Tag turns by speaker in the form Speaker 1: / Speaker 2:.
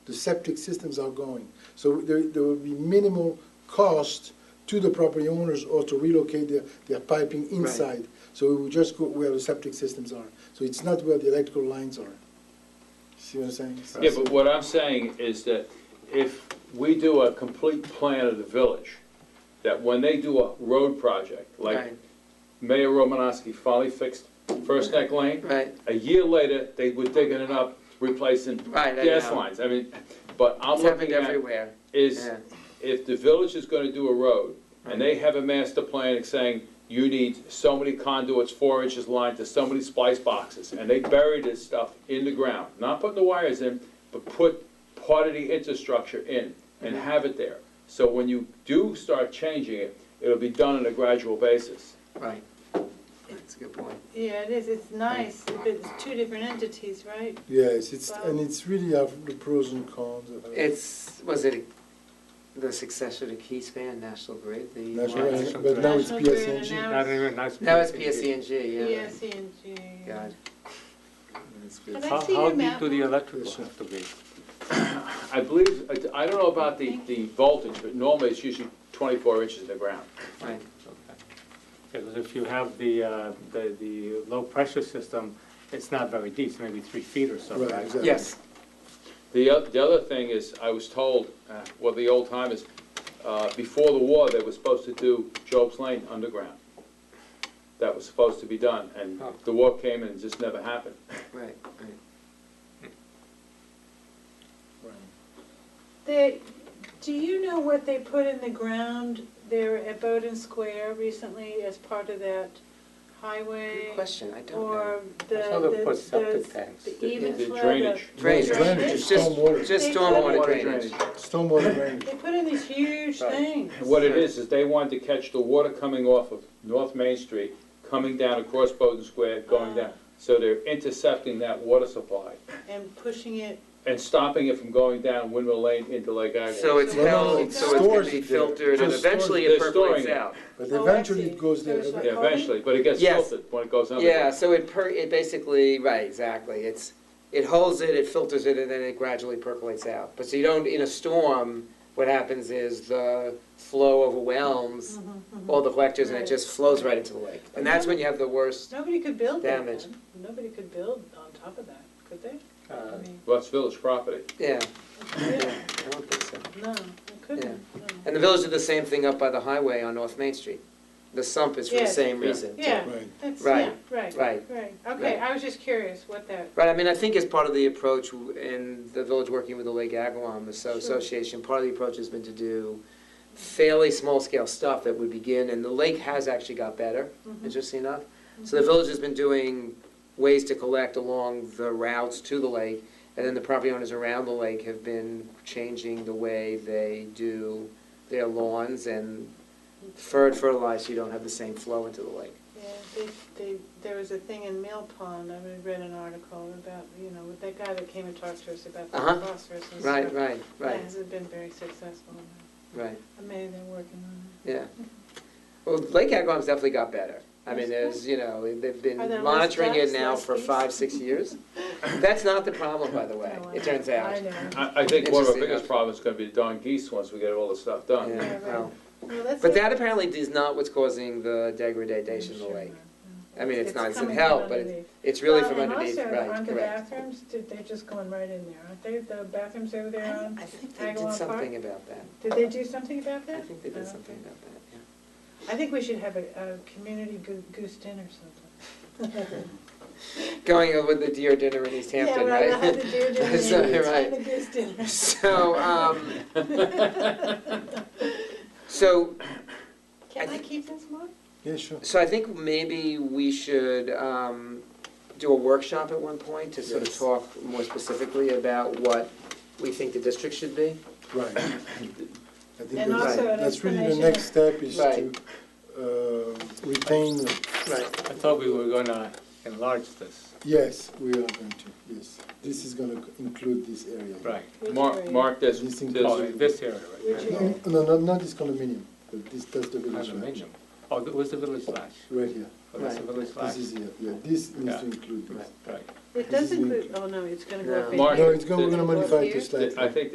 Speaker 1: The septic systems are going. So there, there will be minimal cost to the property owners or to relocate their, their piping inside. So we will just go where the septic systems are. So it's not where the electrical lines are. See what I'm saying?
Speaker 2: Yeah, but what I'm saying is that if we do a complete plan of the village, that when they do a road project, like
Speaker 3: Right,
Speaker 2: Mayor Romanowski finally fixed First Neck Lane,
Speaker 3: right,
Speaker 2: a year later, they were digging it up, replacing
Speaker 3: Right, I
Speaker 2: gas
Speaker 3: know.
Speaker 2: lines. I mean, but I'm
Speaker 3: it's happening
Speaker 2: looking at
Speaker 3: everywhere,
Speaker 2: is
Speaker 3: yeah,
Speaker 2: if the village is gonna do a road, and they have a master plan saying, you need so many conduits, four inches lined to so many splice boxes, and they bury this stuff in the ground, not put the wires in, but put part of the infrastructure in and have it there. So when you do start changing it, it'll be done on a gradual basis.
Speaker 3: right. That's a good point.
Speaker 4: Yeah, it is, it's nice, but it's two different entities, right?
Speaker 1: Yes, it's, and it's really of the pros and cons of it.
Speaker 3: It's, was it the successor to Keyspan, National Grid? the
Speaker 1: National
Speaker 3: one-
Speaker 1: Grid, but now it's
Speaker 4: National Grid and
Speaker 1: PSNG.
Speaker 4: now
Speaker 5: Not
Speaker 4: it's
Speaker 5: even nice.
Speaker 3: Now it's PSENG, E yeah.
Speaker 4: PSENG.
Speaker 3: God.
Speaker 4: Can
Speaker 5: How,
Speaker 4: I see
Speaker 5: how
Speaker 4: your
Speaker 5: deep
Speaker 4: map?
Speaker 5: do the
Speaker 4: Mark?
Speaker 5: electrical have to be?
Speaker 2: I believe, I- I don't know about the, the voltage, but normally it's usually twenty-four inches in the ground.
Speaker 3: Right,
Speaker 5: Because if you have the, uh, the, the low-pressure system, it's not very deep, it's maybe three feet or so,
Speaker 1: Right,
Speaker 5: right?
Speaker 1: exactly.
Speaker 3: yes,
Speaker 2: The, oth- the other thing is, I was told, uh, well, the old timers, uh, before the war, they were supposed to do Job's Lane underground. That was supposed to be done, and
Speaker 3: Oh.
Speaker 2: the war came and it just never happened.
Speaker 3: right, right.
Speaker 4: They, do you know what they put in the ground there at Bowden Square recently as part of that highway?
Speaker 3: Good question, I don't know.
Speaker 4: Or the,
Speaker 5: I saw they
Speaker 4: the,
Speaker 5: put septic tanks.
Speaker 4: the, the
Speaker 2: The-
Speaker 4: even
Speaker 2: the
Speaker 4: flow, the-
Speaker 2: drainage.
Speaker 3: Drainage,
Speaker 1: Drainage,
Speaker 3: just, just
Speaker 1: stormwater.
Speaker 3: stormwater
Speaker 2: Water
Speaker 3: drainage.
Speaker 1: Stormwater drainage.
Speaker 4: They put in these huge
Speaker 3: Right.
Speaker 4: things.
Speaker 2: And What it is, is they wanted to catch the water coming off of North Main Street, coming down across Bowden Square, going down. So they're intercepting that water supply
Speaker 4: And pushing it,
Speaker 2: and stopping it from going down Windmill Lane into Lake Agawam.
Speaker 3: So it's
Speaker 4: Well, no,
Speaker 3: held,
Speaker 4: it
Speaker 3: so it's gonna
Speaker 1: stores
Speaker 3: be
Speaker 1: it there.
Speaker 3: filtered, and
Speaker 1: Just stores
Speaker 3: eventually
Speaker 2: it.
Speaker 3: it
Speaker 2: They're
Speaker 3: percolates
Speaker 2: storing it.
Speaker 3: out.
Speaker 1: But
Speaker 4: Oh, I
Speaker 1: eventually
Speaker 4: see.
Speaker 1: it goes there.
Speaker 4: There's like-
Speaker 2: Yeah, Eventually, but it gets
Speaker 3: Yes.
Speaker 2: filtered when it goes under.
Speaker 3: Yeah, so it per, it basically, right, exactly, it's, it holds it, it filters it, and then it gradually percolates out. But so you don't, in a storm, what happens is the flow overwhelms all the collectors, and it
Speaker 4: Mm-hmm. Right.
Speaker 3: just flows right into the lake. And that's when you have the worst,
Speaker 4: nobody could build that
Speaker 3: Damage.
Speaker 4: then. Nobody could build on top of that, could they? I
Speaker 3: uh,
Speaker 4: mean,
Speaker 2: Well, it's village property.
Speaker 3: yeah, yeah,
Speaker 4: yeah,
Speaker 3: I don't think so.
Speaker 4: no, it couldn't, no.
Speaker 3: And the village did the same thing up by the highway on North Main Street. The sump is for the
Speaker 4: Yes.
Speaker 3: same
Speaker 2: Yeah.
Speaker 3: reason. too.
Speaker 4: Yeah,
Speaker 1: Right.
Speaker 4: that's, yeah,
Speaker 3: Right,
Speaker 4: right,
Speaker 3: right,
Speaker 4: right. Okay,
Speaker 3: right.
Speaker 4: I was just curious what that,
Speaker 3: Right, I mean, I think as part of the approach w- in the village working with the Lake Agawam Asso-
Speaker 4: Sure.
Speaker 3: Association, part of the approach has been to do fairly small-scale stuff that would begin, and the lake has actually got better,
Speaker 4: Mm-hmm.
Speaker 3: interesting enough. So the village has been doing ways to collect along the routes to the lake, and then the property owners around the lake have been changing the way they do their lawns and fer- fertilize, so you don't have the same flow into the lake.
Speaker 4: yeah, they, they, there was a thing in Mill Pond, I read- read an article about, you know, with that guy that came and talked to us about the
Speaker 3: Uh-huh.
Speaker 4: phosphorus and stuff.
Speaker 3: Right, right,
Speaker 4: That
Speaker 3: right,
Speaker 4: hasn't been very successful.
Speaker 3: right.
Speaker 4: I mean, they're working on
Speaker 3: Yeah. Well, Lake Agawam's definitely got better. I mean, there's, you know, they've been
Speaker 4: Are there less
Speaker 3: monitoring it
Speaker 4: ducks,
Speaker 3: now
Speaker 4: less
Speaker 3: for
Speaker 4: geese?
Speaker 3: five, six years. That's not the problem, by the
Speaker 4: it.
Speaker 3: way,
Speaker 4: No, I-
Speaker 3: it turns
Speaker 4: I
Speaker 3: out.
Speaker 4: know.
Speaker 2: I, I think one of our
Speaker 3: Interesting.
Speaker 2: biggest problems is gonna be the Don Geese once we get all this stuff
Speaker 3: Yeah,
Speaker 2: done.
Speaker 4: right.
Speaker 3: well,
Speaker 4: Well, that's
Speaker 3: But
Speaker 4: it.
Speaker 3: that apparently is not what's causing the degradation of the
Speaker 4: Sure
Speaker 3: lake.
Speaker 4: not, no.
Speaker 3: I mean, it's not, it's
Speaker 4: coming
Speaker 3: help,
Speaker 4: from
Speaker 3: but
Speaker 4: underneath.
Speaker 3: it's, it's really
Speaker 4: Well,
Speaker 3: from underneath, right,
Speaker 4: And also, aren't the
Speaker 3: correct.
Speaker 4: bathrooms, did they just going right in there, aren't they, the bathrooms over there on,
Speaker 3: I think they did
Speaker 4: um, Agawam
Speaker 3: something about that.
Speaker 4: did they do something about
Speaker 3: I
Speaker 4: that?
Speaker 3: think they
Speaker 4: Oh,
Speaker 3: did
Speaker 4: okay.
Speaker 3: something about that, yeah.
Speaker 4: I think we should have a, a community goo- goose dinner sometime.
Speaker 3: Going with the deer dinner in East Hampton,
Speaker 4: Yeah,
Speaker 3: right?
Speaker 4: we'll have the deer dinner,
Speaker 3: So,
Speaker 4: and we'll
Speaker 3: right.
Speaker 4: have the goose dinner.
Speaker 3: So, um, so
Speaker 4: Can
Speaker 3: I
Speaker 4: I
Speaker 3: think-
Speaker 4: keep this one?
Speaker 1: Yeah, sure.
Speaker 3: So I think maybe we should um, do a workshop at one point to sort of
Speaker 1: Yes.
Speaker 3: talk more specifically about what we think the district should be.
Speaker 1: Right. I think that's,
Speaker 4: And
Speaker 3: also
Speaker 4: an
Speaker 1: that's really the
Speaker 4: explanation
Speaker 1: next
Speaker 4: of-
Speaker 1: step is to
Speaker 3: Right.
Speaker 1: uh, retain, the-
Speaker 3: Right.
Speaker 5: I thought we were gonna enlarge this,
Speaker 1: yes, we are going to, yes. This is gonna include this area.
Speaker 5: right?
Speaker 2: Mark, mark this,
Speaker 1: This
Speaker 2: this,
Speaker 1: includes-
Speaker 5: Oh, this area,
Speaker 4: Which
Speaker 5: right?
Speaker 1: No, no, no, not this condominium, but this, that's the village.
Speaker 5: Condominium. Oh, that was the village slash,
Speaker 1: Right here,
Speaker 5: oh, that's the village slash,
Speaker 1: this is here, yeah, this needs
Speaker 5: Yeah.
Speaker 1: to include this.
Speaker 5: right.
Speaker 4: It does include, oh no, it's gonna go up.
Speaker 3: No.
Speaker 4: in
Speaker 2: Mark,
Speaker 4: here.
Speaker 3: Um,
Speaker 1: No, it's going, we're gonna modify this later.
Speaker 2: I think